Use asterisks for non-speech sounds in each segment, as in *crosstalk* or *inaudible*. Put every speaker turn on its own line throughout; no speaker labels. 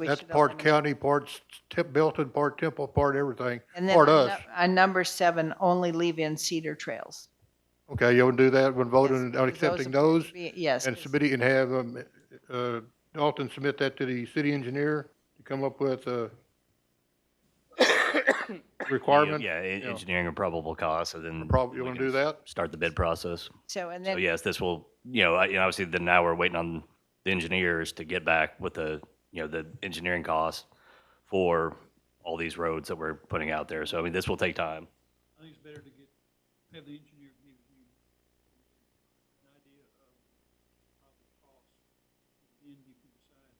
we
That's
should
part
eliminate-
county, part s- Tip- Belton, part Temple, part everything,
And then
part
on nu-
us.
On number seven, only leave in Cedar Trails.
Okay, you'll do that when voting
Yes,
on
because those
accepting
are-
those?
Be- Yes.
And
please.
submit it and have, um, uh, Dalton submit that to the city engineer to come up
*coughs*
with a requirement?
Yeah, en-
Yeah.
engineering and probable cause, and then.
Prob- you
we
wanna
can
do that?
Start the bid process.
So, and
So
then,
yes, this will, you know, I- you know, obviously then now we're waiting on the engineers to get back with the, you know, the engineering costs for all these roads that we're putting out there. So I mean, this will take time.
I think it's better to get, have the engineer give you an idea of probable cost, and then you can decide.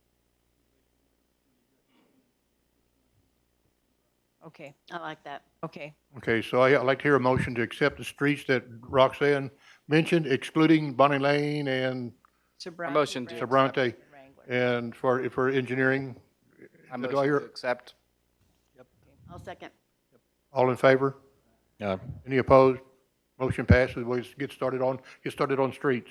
okay,
I like that.
okay.
Okay, so I- I'd like to hear a motion to accept the streets that Roxanne mentioned, excluding Bonnie Lane and,
Sobrante,
motion to
Wrangler,
Sobrante.
Wrangler.
and for, for engineering.
I
Do I
motion to
hear-
accept.
I'll second.
All in favor? Any opposed? Motion passes. We'll get started on, get started on streets.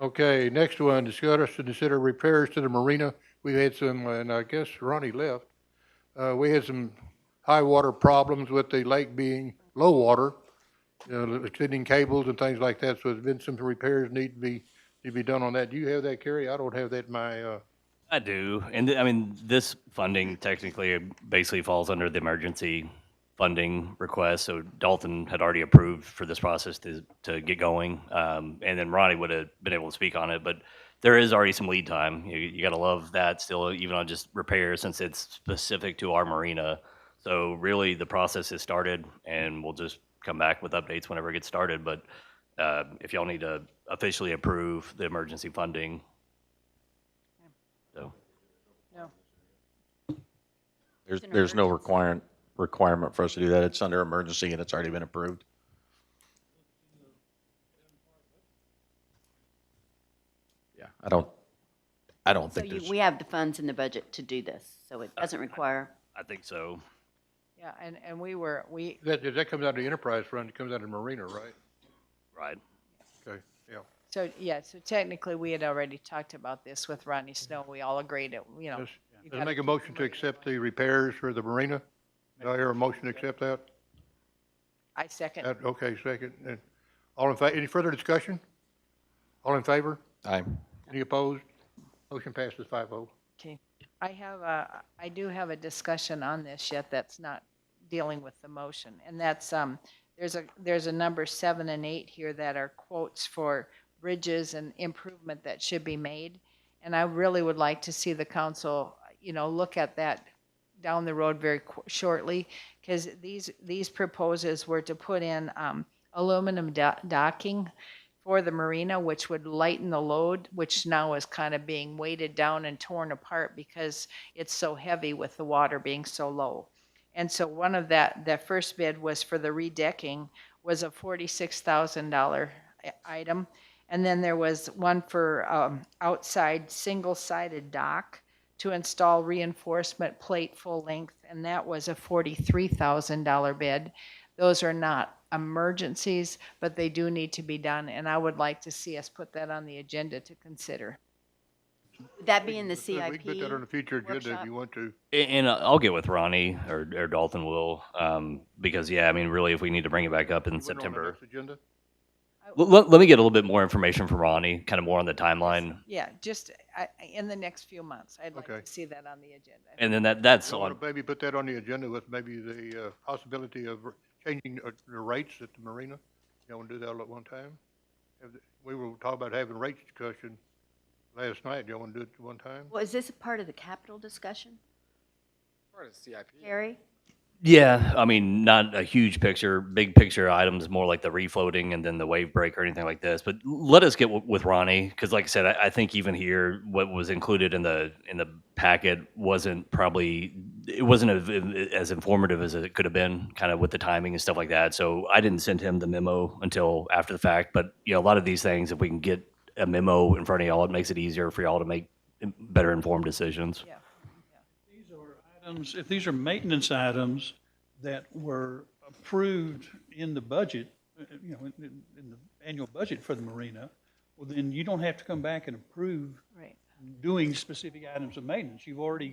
Okay, next one, discuss and consider repairs to the marina. We had some, and I guess Ronnie left. Uh, we had some high water problems with the lake being low water, you know, extending cables and things like that. So there's been some repairs need to be, to be done on that. Do you have that, Kerry? I don't have that in my, uh,
I do, and th- I mean, this funding technically basically falls under the emergency funding request. So Dalton had already approved for this process to, to get going, um, and then Ronnie would have been able to speak on it. But there is already some lead time. You, you got to love that still, even on just repairs, since it's specific to our marina. So really, the process has started, and we'll just come back with updates whenever it gets started. But uh, if y'all need to officially approve the emergency funding, so.
No.
There's, there's no requirement, requirement for us to do that. It's under emergency and it's already been approved. Yeah, I don't, I don't
So
think
you,
there's,
we have the funds in the budget to do this, so it doesn't require,
I think so.
Yeah, and, and we were, we,
that, that comes out of the enterprise fund, it comes out of the marina, right?
Right.
Okay, yeah.
so, yeah, so technically, we had already talked about this with Ronnie Snow. We all agreed it, you know.
Yes.
you
Let's
gotta
make a
keep
motion
the
to
marina
accept
going.
the repairs for the marina. Do I hear a motion to accept that?
I second.
That- Okay, second. And All in, fa- any further discussion? All in favor?
I'm,
Any opposed? Motion passes five oh.
Okay. I have a, I do have a discussion on this yet that's not dealing with the motion. And that's, um, there's a, there's a number seven and eight here that are quotes for bridges and improvement that should be made. And I really would like to see the council, you know, look at that down the road very qu- shortly. Because these, these proposals were to put in, um, aluminum do- docking for the marina, which would lighten the load, which now is kind of being weighted down and torn apart because it's so heavy with the water being so low. And so one of that, that first bid was for the redecking was a forty-six thousand dollar item. And then there was one for, um, outside single-sided dock to install reinforcement plate full length, and that was a forty-three thousand dollar bid. Those are not emergencies, but they do need to be done, and I would like to see us put that on the agenda to consider.
would that be in the
We can put that on the
CIP?
future agenda if
workshop?
you want to.
A- And uh, I'll get with Ronnie or, or Dalton will, um, because yeah, I mean, really, if we need to bring it back up in
You want it on the
September,
next Agenda?
let, let, let me get a little bit more information from Ronnie, kind of more on the timeline,
Yeah, just I- I- in the next few months, I'd like
Okay.
to see that on the agenda.
and then that that's
You want
on.
to maybe put that on the agenda with maybe the uh, possibility of changing uh, the rates at the marina? You want to do that all at one time? Have the- We were talking about having rate discussion last night. You want to do it at one time?
Well, is this a part of the capital discussion,
Part of CIP.
Carrie?
Yeah, I mean, not a huge picture, big picture items, more like the refloating and then the wave break or anything like this. But let us get w- with Ronnie because, like I said, I, I think even here, what was included in the in the packet wasn't probably it wasn't a, as informative as it could have been, kind of with the timing and stuff like that. So I didn't send him the memo until after the fact. But you know, a lot of these things, if we can get a memo in front of y'all, it makes it easier for y'all to make better informed decisions.
Yeah.
These are items, if these are maintenance items that were approved in the budget, uh, you know, in, in- in the annual budget for the marina, well, then you don't have to come back and approve
Right.
doing specific items of maintenance. You've already